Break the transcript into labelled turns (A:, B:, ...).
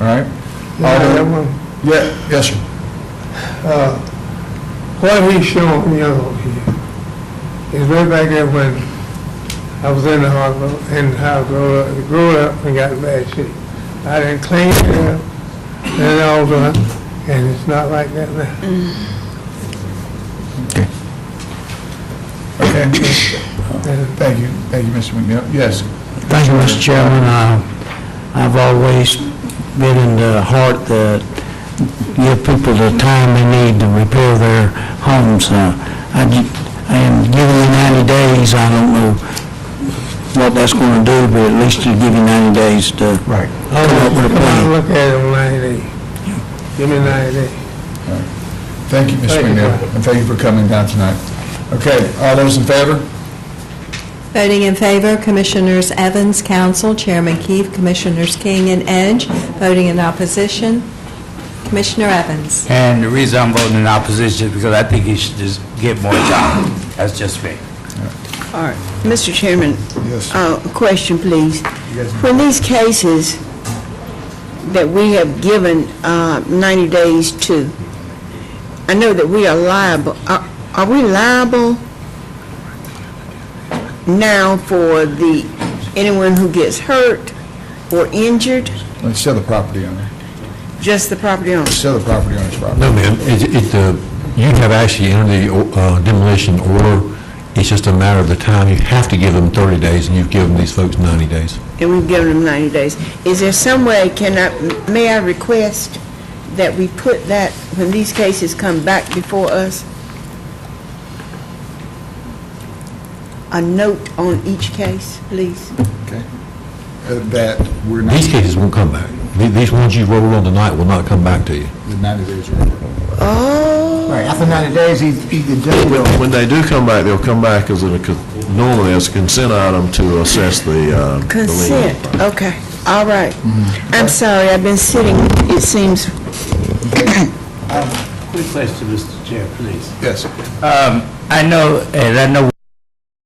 A: All right. Alderman-
B: What
A: Yeah, yes, sir.
B: uh, he's showing yellow here is way back there when I was in the harbor, in the house, grew up- grew up and got in bad shape. I didn't clean it up, and it all done, and it's not like that now.
A: Okay, thank you, thank you, Mr. McNeil. Yes,
C: Thank you, Mr. Chairman. Uh, I've always been in the heart that give people the time they need to repair their homes. Uh, I ju- And giving you 90 days, I don't know what that's going to do, but at least you give you 90 days to
A: right.
C: come up with a
B: Come
C: plan.
B: look at it ninety days. Give me ninety days.
A: Thank you, Mr.
B: Thank you,
A: McNeil, and thank you for coming down tonight. Okay, all those in favor?
D: Voting in favor, Commissioners Evans, Council, Chairman Keefe, Commissioners King and Edge. Voting in opposition, Commissioner Evans.
E: And the reason I'm voting in opposition is because I think he should just get more time. That's just me.
F: All right. Mr. Chairman,
A: Yes.
F: uh, a question, please.
A: You guys-
F: When these cases that we have given uh, 90 days to, I know that we are liable, are are we liable now for the, anyone who gets hurt or injured,
A: Let's sell the property owner,
F: just the property owner?
A: sell the property owner's property.
G: No, ma'am, it, it, uh, you have actually entered the uh, demolition order, it's just a matter of the time, you have to give them 30 days, and you've given these folks 90 days.
F: and we've given them 90 days. Is there some way, can I, may I request that we put that, when these cases come back before us, a note on each case, please?
A: Okay. Uh, That we're not,
G: These cases won't come back. The- These ones you rolled on tonight will not come back to you.
A: the 90 days are over.
F: Oh,
H: Right, after 90 days, he, he, the judge will,
I: When they do come back, they'll come back as a, con- normally as a consent item to assess the, uh, the lien.
F: consent, okay, all right. I'm sorry, I've been sitting, it seems,
E: Quick question, Mr. Chair, please.
A: Yes.
E: Um, I know, and I know